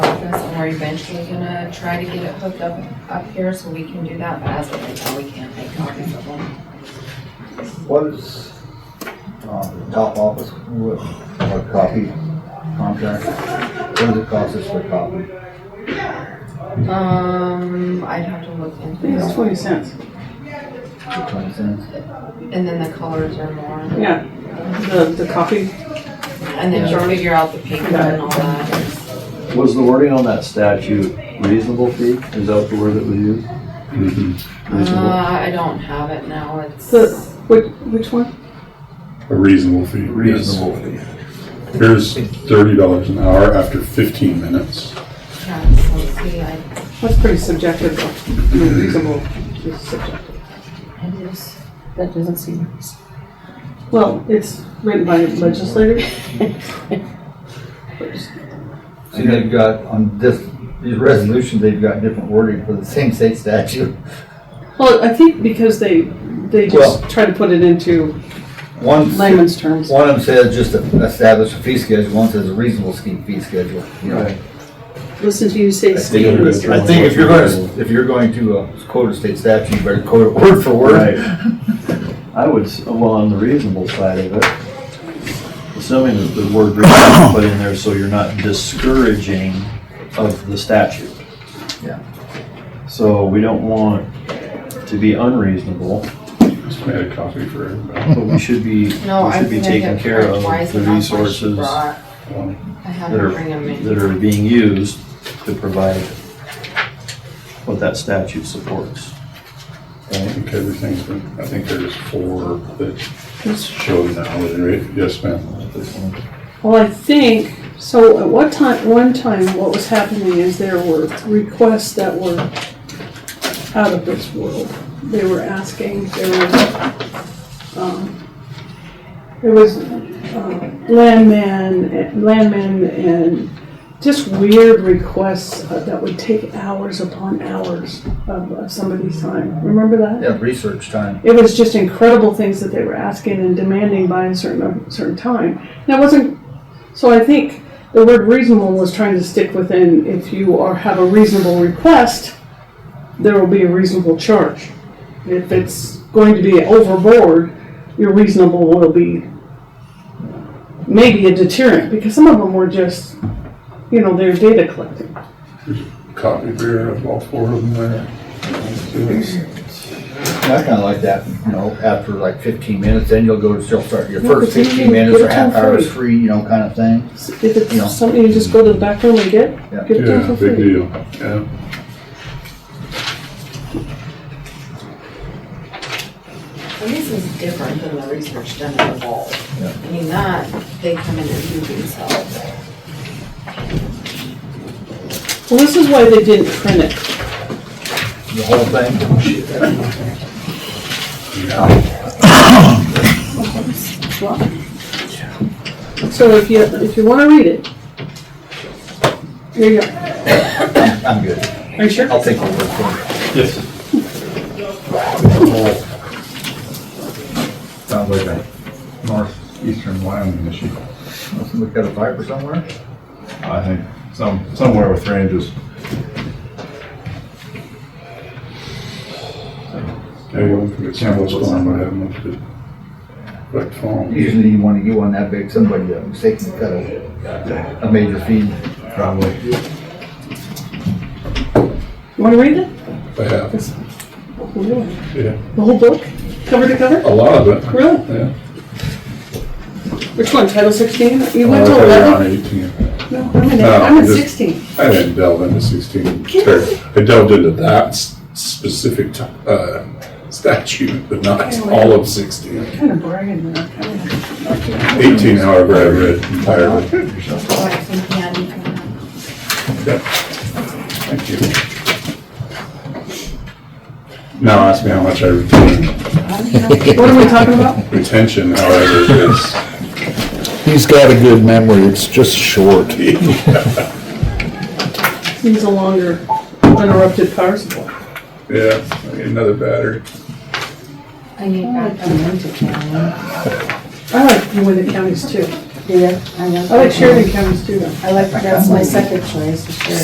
are eventually gonna try to get it hooked up, up here so we can do that, but as of right now, we can't make copies of them. What is, um, the top office, what, what copy contract? What does it cost us for copy? Um, I'd have to look I into think it's it, twenty cents. Twenty cents? and then the colors are more, Yeah, the, the copy. and then you'll figure out the paper and all that. Was the wording on that statute reasonable fee? Is that the word that was used? Mm-hmm. Reasonable? Uh, I don't have it now, it's, The, which, which one? A reasonable fee. yes. Reasonable fee. Here's thirty dollars an hour after fifteen minutes. yeah, so let's see, I, That's pretty subjective though. I mean, reasonable is subjective. it is, that doesn't seem reasonable. Well, it's written by legislators. See, they've got on this, these resolutions, they've got different wording for the same state statute. Well, I think because they, they just Well- try to put it into One, one layman's terms. of them says just to establish a fee schedule, one says a reasonable scheme fee schedule, you know. Right. Listen to you say I scheme, Mr. Right. think if you're going, if you're going to uh, quote a state statute, you better quote it word for Right. word. I would, s- well, on the reasonable side of it, assuming that the word reasonable is put in there so you're not discouraging of the statute. Yeah. So we don't want to be unreasonable, Just made a copy for everybody. but we should be, we No, I should be think taking it care of twice the and that's why she resources that brought, Um, I had to are, bring them in. that are being used to provide what that statute supports. I think everything's been, I think there's four that show the hourly rate. Yes, ma'am. Well, I think, so at what time, one time, what was happening is there were requests that were out of this world. They were asking, there was, um, there was, uh, landman, landman and just weird requests uh, that would take hours upon hours of, of somebody's time. Remember that? Yeah, research time. It was just incredible things that they were asking and demanding by a certain a certain time. That wasn't so. I think the word reasonable was trying to stick within. If you are have a reasonable request, there will be a reasonable charge. If it's going to be overboard, your reasonable will be maybe a deterrent because some of them were just, you know, they're data collecting. Copy beer of all four of them there. I kind of like that, you know, after like fifteen minutes, then you'll go to, you'll start your first but then you fifteen minutes get or it half all hour is free. free, you know, kind of thing. If it's Yeah. something you just go to the back room and get, get it done Yeah, for big free. deal. Yeah. And this is different than the research done at the vault. Yeah. I mean, that, they come in and do themselves. Well, this is why they didn't print it. The whole Oh, thing, So if you, if you wanna read it. Here you go. I'm good. Are you sure? I'll take your word for it. Yes. Sounds like a, northeastern Wyoming issue. must we got a fiber somewhere? I think some, somewhere with ranges. I wouldn't think it's much fun, but I have much to, like, phone. Usually you want to get one that big, somebody uh, mistakenly cut a, a major feed. Probably. You wanna read it? I have, The yeah. whole book, cover to cover? A lot of it. Really? Yeah. Which one, title sixteen? You I went to thought you were eleven? on 18. No, I'm at, Uh, No, I'm at just- sixteen. I didn't delve into 16. ter- I delved into that s- specific t- uh, statute, but not all of 16. Kinda bragging there, kinda. 18, however, I read entirely. Oh, I think Andy can have- Thank you. Now ask me how much I retain. What are we talking about? Retention, however, is. He's got a good memory, it's just short. Needs a longer uninterrupted power supply. Yeah, I need another battery. I need I back like to Monte County. I like Uinta counties too. Yeah, I know. Oh, I like Sheridan counties too though. I like, that's my second choice, is Sheridan.